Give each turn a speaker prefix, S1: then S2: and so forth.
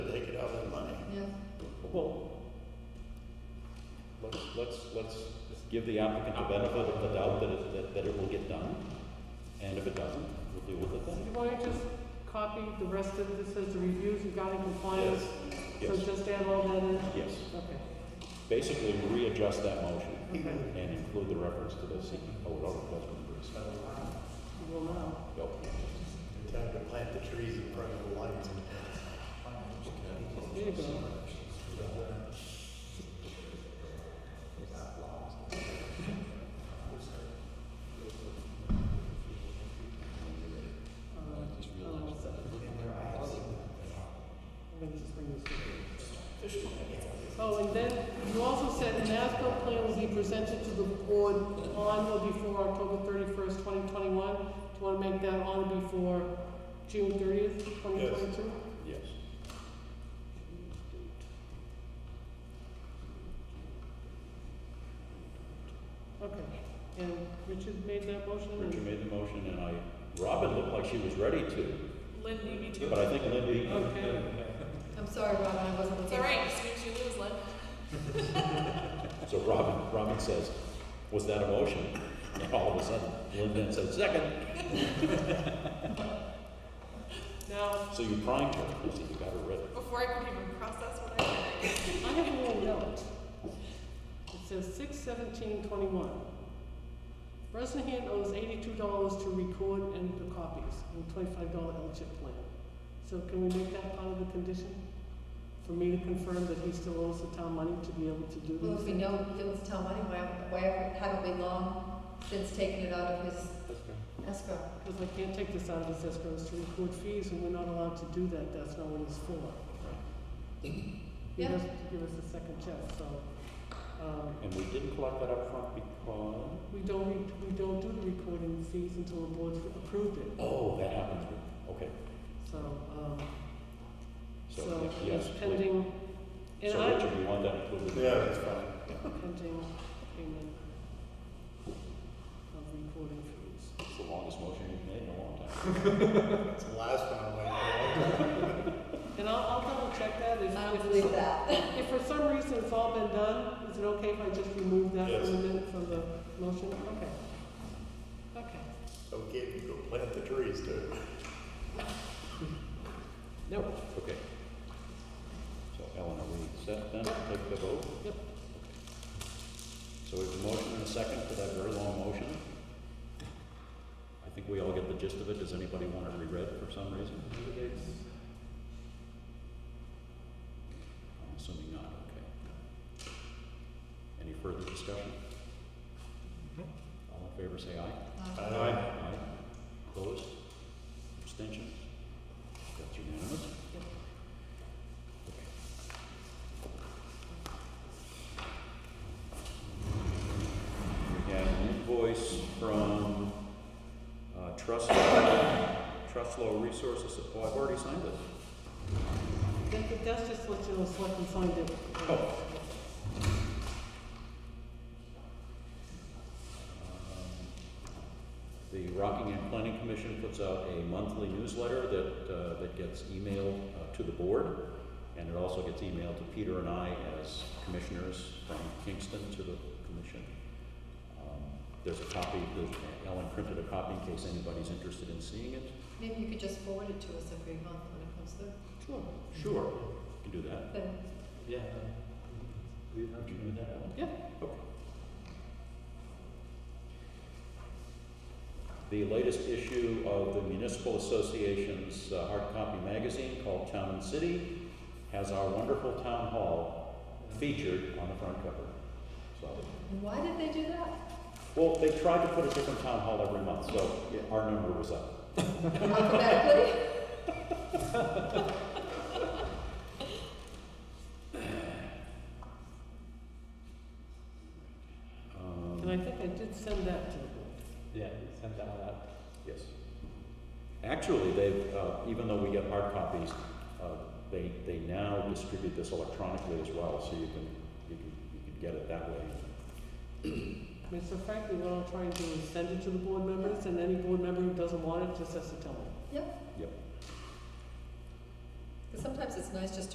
S1: Well, let's, let's, let's give the applicant the benefit of the doubt that it, that, that it will get done, and if it doesn't, we'll deal with it
S2: Do
S1: then.
S2: you want to just copy the rest of this as the reviews regarding compliance?
S1: Yes,
S2: So
S1: yes,
S2: just add all that in?
S1: yes.
S2: Okay,
S1: Basically, readjust that motion
S2: okay,
S1: and include the reference to the E CEO request from Bruce.
S2: we will now.
S1: Go.
S3: Time to plant the trees in front of the lights.
S2: There you go. Uh, oh, what's that? Let me just bring this up. Oh, and then you also said an ASBIL plan will be presented to the board on or before October thirty-first, twenty twenty-one. Do you wanna make that on or before June thirtieth, twenty twenty-two?
S1: Yes.
S2: Okay, and Richard made that motion,
S1: Richard
S2: and
S1: made the motion, and I, Robin looked like she was ready to,
S4: Lynn, you need to.
S1: but I think Lindy,
S2: Okay.
S5: I'm sorry, Robin, I wasn't
S4: It's
S5: looking.
S4: all right, just means you lose, Lynn.
S1: so Robin, Robin says, was that a motion? And all of a sudden, Linda said, second.
S2: now,
S1: So you primed her, you said you got her ready.
S4: Before I could even process what I did.
S2: I have a little note. It says six seventeen twenty-one. Bresnahan owes eighty-two dollars to record and the copies, and a twenty-five dollar L-chip plan. So can we make that part of the condition? For me to confirm that he still owes the town money to be able to do
S5: Well, if we
S2: this?
S5: know it was town money, why, why haven't we long since taken it out of his escrow?
S2: Because I can't take this out of his escrow, it's to record fees, and we're not allowed to do that, that's not what it's for. He
S5: Yeah.
S2: has to give us a second check, so, um,
S1: And we didn't collect that up front because,
S2: we don't, re- we don't do the recording fees until the board approved it,
S1: oh, that happens, okay,
S2: so, um,
S1: so,
S2: so
S1: yes,
S2: it's
S1: please.
S2: pending, and
S1: So
S2: I,
S1: Richard, you want that included?
S3: Yeah, that's fine.
S2: pending payment of recording fees.
S1: It's the longest motion you've made in a long time.
S3: It's the last one I'm like,
S2: And I'll, I'll double check that, if,
S5: I don't
S2: if,
S5: believe that.
S2: if for some reason it's all been done, is it okay if I just remove that
S3: Yes.
S2: from the minute, from the motion? Okay. Okay,
S3: okay, you go plant the trees too.
S2: nope,
S1: Okay. So Ellen, are we set then, take the vote?
S2: Yep.
S1: So we have a motion and a second for that very long motion. I think we all get the gist of it, does anybody want it reread for some reason? I'm assuming not, okay. Any further discussion? All in favor, say aye.
S5: Uh,
S3: Aye.
S1: Opposed? Abstentions? That's unanimous? Okay. We have an invoice from uh, Trustlow, Trustlow Resources, oh, I've already signed it.
S2: That- that- that's just what you'll select and find it.
S1: Oh. Um, The Rockingham Planning Commission puts out a monthly newsletter that, uh, that gets emailed uh, to the board, and it also gets emailed to Peter and I as commissioners from Kingston to the commission. Um, There's a copy, there's- Ellen printed a copy in case anybody's interested in seeing it.
S5: Maybe you could just forward it to us every month when it comes through.
S1: Sure. Sure, you can do that.
S5: Then
S1: Yeah. Did you do that, Ellen?
S2: Yeah.
S1: Okay. The latest issue of the Municipal Association's uh, hard copy magazine called Town and City has our wonderful town hall featured on the front cover. So,
S5: Why did they do that?
S1: well, they tried to put a different town hall every month, so our number was up.
S5: Alphabetically?
S1: Um,
S2: And I think I did send that to the board.
S1: Yeah, send that out. Yes. Actually, they've, uh, even though we get hard copies, uh, they, they now distribute this electronically as well, so you can, you can, you can get it that way.
S2: I mean, so frankly, what I'll try and do is send it to the board members, and any board member who doesn't want it just has to tell me.
S5: Yep.
S1: Yep.
S5: Because sometimes it's nice just to